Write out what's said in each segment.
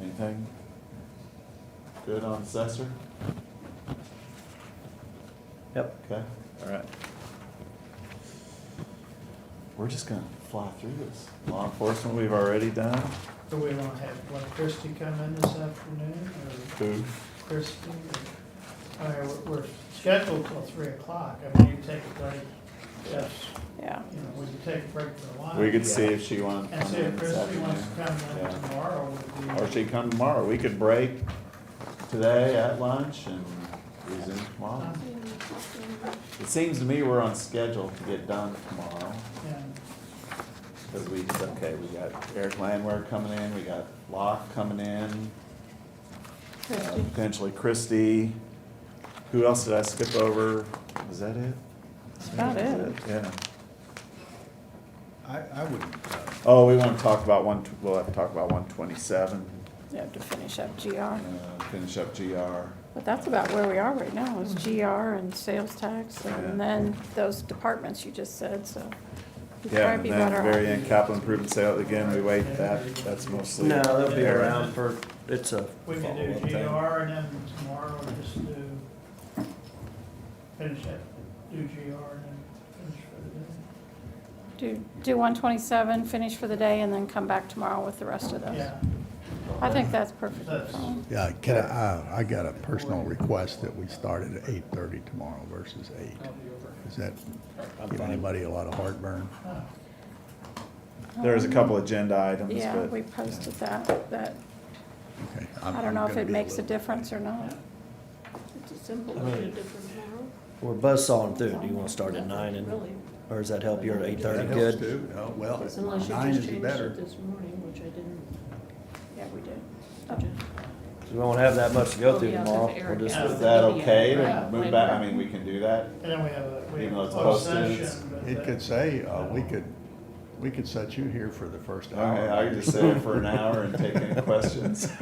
anything? Good on assessor? Yep, Okay, all right. we're just gonna fly through this. Law enforcement, we've already done. Do we want to have, want Christie come in this afternoon, or Food, Christie, or, I mean, we're- we're scheduled till three o'clock, I mean, you take a break, yes, Yeah. you know, we could take a break for a while. we could see if she wanted to And come see in if this Christie wants to afternoon. come in Yeah. tomorrow, would be. Or she come tomorrow, we could break today at lunch and resume tomorrow. Uh-huh. It seems to me we're on schedule to get done tomorrow, And because we, okay, we got Eric Landwehr coming in, we got Locke coming in, uh, Christie. potentially Christie. Who else did I skip over? Is that it? That's about it. Yeah. I, I would, uh, Oh, we want to talk about one, tw- we'll have to talk about one twenty-seven, You have to finish up GR. uh, finish up GR. But that's about where we are right now, is Mm-hmm. GR and sales tax, Yeah. and then those departments you just said, so. we'd Yeah, and probably be then better off. very end capital improvement sale, again, we wait, that, that's mostly. No, they'll be Eric. around for, it's a, we could do Follow up then. GR, and then tomorrow, we'll just do, finish it, do GR, and then finish for the day. Do, do one twenty-seven, finish for the day, and then come back tomorrow with the rest of those. Yeah, I think that's perfectly That's- fine. yeah, can I, uh, I got a personal request that we start at eight thirty tomorrow versus eight. I'll be over. Does that I'm give fine. anybody a lot of heartburn? Oh, There's a couple agenda items, but. Yeah, we posted that, that, Okay, I'm- I don't I'm know if gonna it be makes a little- difference or not. It's a simple, but a different tomorrow. we're buzz sawing through. Do you want to start at nine and, Really, or does that help you at eight That thirty? helps Good? too. No, Well, unless you nine just is changed better. it this morning, which I didn't. Yeah, we did. suggest. We won't have that much to go Oh, through yeah, it's tomorrow. up to We'll Eric. just, Yeah. Is that okay to Right. move back? I mean, we can do that. And then we have a, we have Even though a it's closed posted, session, but It that- could say, uh, we could, we could set you here for the first Oh. All right, hour. I could just sit here for an hour and take any questions.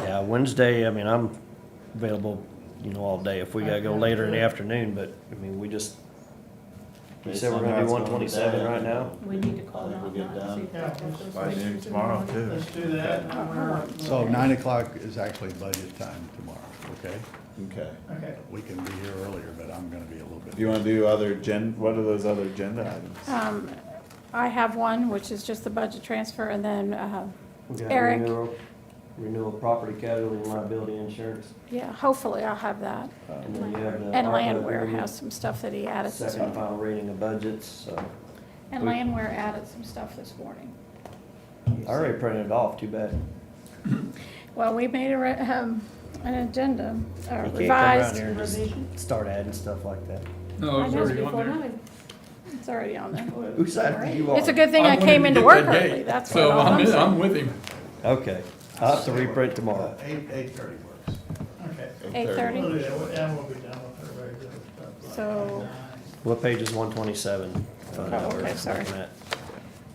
yeah, Wednesday, I mean, I'm available, you know, all day if we gotta go later in the afternoon, but, I mean, we just, You said we're gonna do 127 right now? We need to call I think Donna we'll and get see if done that gives us By noon license in the tomorrow morning. too. Let's do that. and we're- So nine o'clock is actually budget time tomorrow, okay? Okay. Okay, We can be here earlier, but I'm gonna be a little bit. Do you wanna do other gen, what are those other agenda items? Um, I have one, which is just the budget transfer, and then, uh, we got Eric. renewal, renewal property casualty and liability insurance. yeah, hopefully I'll have that. And then you have the And ARPA Landwehr agreement, has some stuff that he added this Second and morning. final reading of budgets, so. And we- Landwehr added some stuff this morning. I already printed it off, too bad. Well, we made a, re- um, an agenda, uh, You can't come around revised. here and just Start adding stuff like that. No, it was I know. already on Before there. nine. It's already on there. Who side do you want? It's a good thing I I wanted came to into get work that date, early, that's what So all I'm I'm, saying. I'm with him. Okay, I'll have to reprint tomorrow. Eight, eight thirty works. okay. Eight thirty. We'll do that, we'll- and we'll be done with our regular stuff. by So- nine. What page is one twenty-seven? Oh, okay, sorry.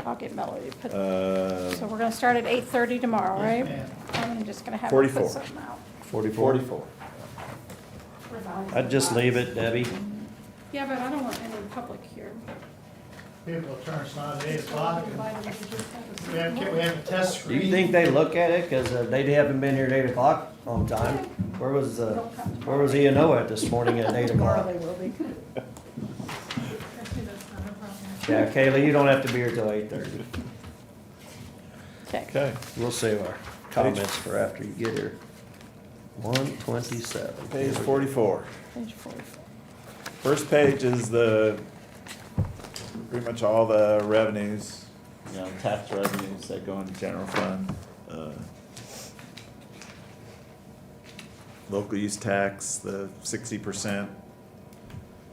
I'll get Melody to put, Uh, so we're gonna start at eight thirty tomorrow, Yes, right? ma'am. I'm just gonna have her 44. put something out. Forty-four? forty-four. I'd just leave it, Debbie. Yeah, but I don't want any public here. People turn us on at eight o'clock, and we have, we have a test Do screen. you think they look at it? Cause uh, they haven't been here at eight o'clock on time. Where was, uh, where was E and O at this morning at eight o'clock? will be. Yeah, Kaylee, you don't have to be here till eight thirty. Okay. Okay, We'll save our comments for after you get here. One twenty-seven. page forty-four. Page forty-four. First page is the, pretty much all the revenues, you know, tax revenues that go into general fund. uh, Local use tax, the sixty percent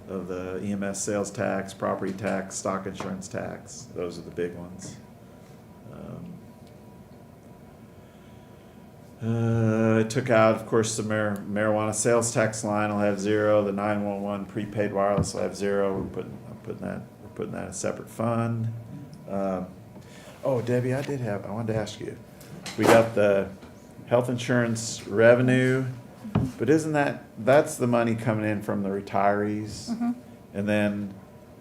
of the EMS sales tax, property tax, stock insurance tax, those are the big ones. Um, uh, I took out, of course, the mar- marijuana sales tax line will have zero, the nine one one prepaid wireless will have zero, we're putting, I'm putting that, we're putting that in a separate fund. Um, Oh, Debbie, I did have, I wanted to ask you, we got the health insurance revenue, but isn't that, that's the money coming in from the retirees? And then